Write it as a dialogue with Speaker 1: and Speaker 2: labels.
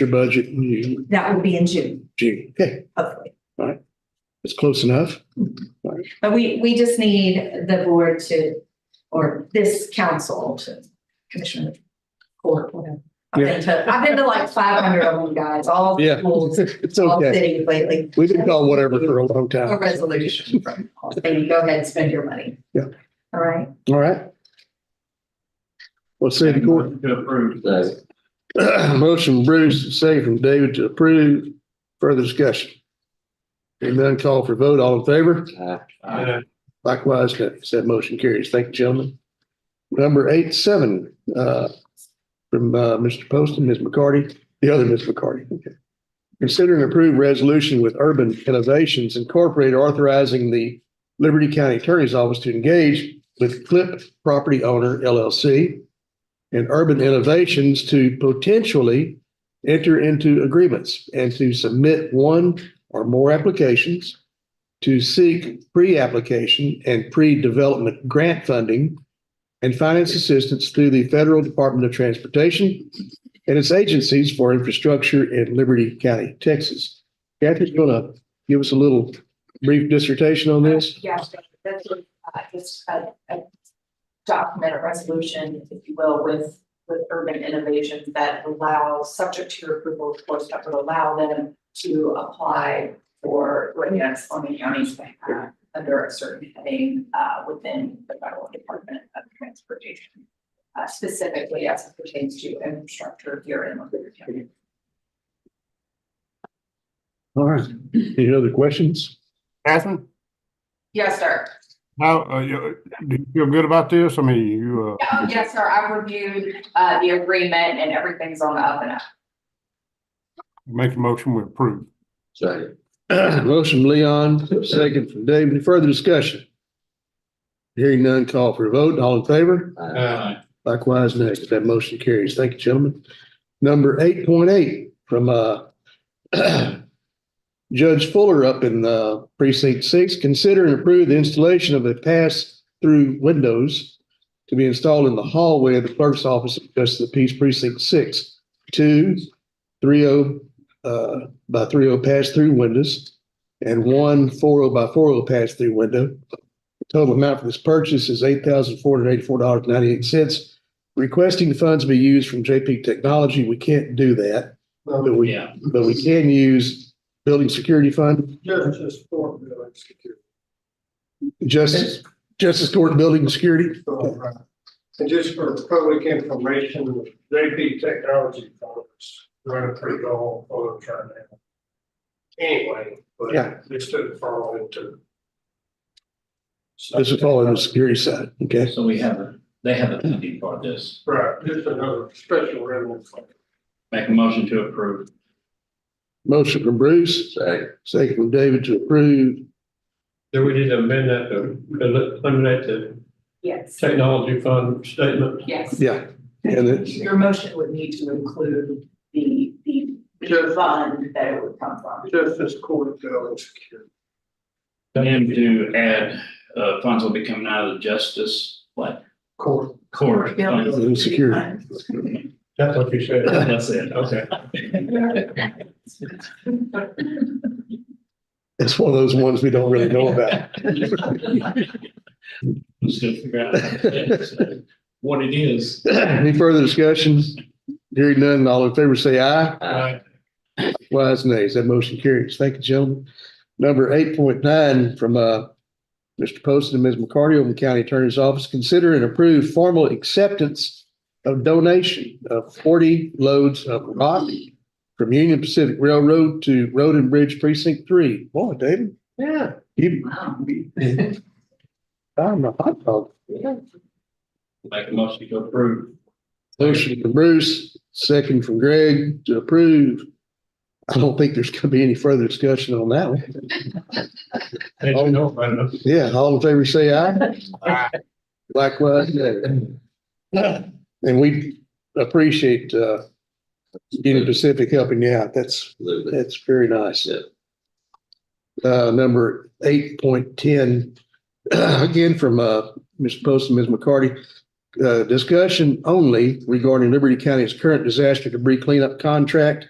Speaker 1: your budget in June.
Speaker 2: That will be in June,
Speaker 1: June. Okay,
Speaker 2: hopefully.
Speaker 1: it's close enough.
Speaker 2: But we, we just need the board to, or this council to, Commissioner Court, whatever. I've been to, I've been to like five hundred of them, guys, all
Speaker 1: Yeah,
Speaker 2: schools,
Speaker 1: it's
Speaker 2: all
Speaker 1: okay.
Speaker 2: cities lately.
Speaker 1: We've been called whatever for a long
Speaker 2: A
Speaker 1: time.
Speaker 2: resolution from, saying, go ahead and spend your money.
Speaker 1: Yeah.
Speaker 2: All right,
Speaker 1: All right. Well, city court,
Speaker 3: To approve. Second.
Speaker 1: motion Bruce, second from David to approve. Further discussion. Hearing none, call for vote. All in favor? Likewise, that, that motion carries. Thank you, gentlemen. Number eight, seven, uh, from, uh, Mr. Poston, Ms. McCarty, the other Ms. McCarty. Okay. Consider and approve resolution with Urban Innovations Incorporated authorizing the Liberty County Attorney's Office to engage with Clip Property Owner LLC and Urban Innovations to potentially enter into agreements and to submit one or more applications to seek pre-application and pre-development grant funding and finance assistance through the Federal Department of Transportation and its agencies for infrastructure in Liberty County, Texas. Kathy's gonna give us a little brief dissertation on this.
Speaker 2: Yeah, that's what, uh, just a, a document, a resolution, if you will, with, with urban innovations that allow, subject to your approval, of course, that would allow them to apply for, what, yes, on the county's behalf, under a certain heading, uh, within the federal department of transportation. Uh, specifically as it pertains to infrastructure here in Montgomery County.
Speaker 1: All right. Any other questions?
Speaker 4: Catherine,
Speaker 2: Yes, sir.
Speaker 4: how, uh, you, do you feel good about this? I mean, you, uh,
Speaker 2: Oh, yes, sir. I've reviewed, uh, the agreement and everything's on the up and up.
Speaker 4: make a motion, we approve.
Speaker 3: Second.
Speaker 1: Motion Leon, second from Dave. Any further discussion? Hearing none, call for a vote. All in favor?
Speaker 3: uh,
Speaker 1: Likewise, next, that motion carries. Thank you, gentlemen. Number eight point eight from uh Judge Fuller up in uh precinct six, consider and approve the installation of a pass-through windows to be installed in the hallway of the clerk's office of Justice of the Peace Precinct Six, two three oh uh by three oh pass-through windows and one four oh by four oh pass-through window. Total amount for this purchase is eight thousand four hundred eighty-four dollars ninety-eight cents. Requesting funds be used from JP Technology. We can't do that, but we,
Speaker 3: Yeah.
Speaker 1: but we can use building security fund,
Speaker 5: Just, just for building security.
Speaker 1: justice, justice court building security.
Speaker 5: And just for public information, JP Technology Conference, running pretty long on it right now. Anyway,
Speaker 1: Yeah.
Speaker 5: but this didn't fall into.
Speaker 1: This is all on the security side. Okay.
Speaker 3: So we have, a they have a pending for this.
Speaker 5: Right, just another special revenue. fund.
Speaker 3: Make a motion to approve.
Speaker 1: Motion from Bruce,
Speaker 3: Second.
Speaker 1: second from David to approve.
Speaker 6: Then we need to amend that to eliminate the
Speaker 2: Yes.
Speaker 6: technology fund statement.
Speaker 2: Yes.
Speaker 1: Yeah. And it,
Speaker 2: Your motion would need to include the, the, the fund that it would come from.
Speaker 5: Just this court building security.
Speaker 3: And to add, uh, funds will be coming out of the justice, what,
Speaker 5: Court.
Speaker 3: court. funds.
Speaker 1: Building security.
Speaker 6: That's what you
Speaker 1: Oh.
Speaker 6: said.
Speaker 3: That's it.
Speaker 6: Okay.
Speaker 1: it's one of those ones we don't really know about.
Speaker 3: Just gonna figure out what it is.
Speaker 1: Any further discussion? Hearing none, all in favor say aye.
Speaker 3: Aye.
Speaker 1: Wise nays, that motion carries. Thank you, gentlemen. Number eight point nine from uh Mr. Poston and Ms. McCarty, Oakland County Attorney's Office, consider and approve formal acceptance of donation of forty loads of rock from Union Pacific Railroad to Road and Bridge Precinct Three. Boy, David. Yeah. You, I'm a hot dog.
Speaker 3: Make a motion to approve.
Speaker 1: Motion from Bruce, second from Greg to approve. I don't think there's gonna be any further discussion on that one.
Speaker 6: Did you know about it?
Speaker 1: Yeah, all in favor, say aye.
Speaker 4: Aye.
Speaker 1: Likewise, nay. And we appreciate, uh, Union Pacific helping you out. That's,
Speaker 3: Absolutely.
Speaker 1: that's very nice.
Speaker 3: Yeah.
Speaker 1: Uh, number eight point ten, again from, uh, Mr. Post and Ms. McCarty. Uh, discussion only regarding Liberty County's current disaster debris cleanup contract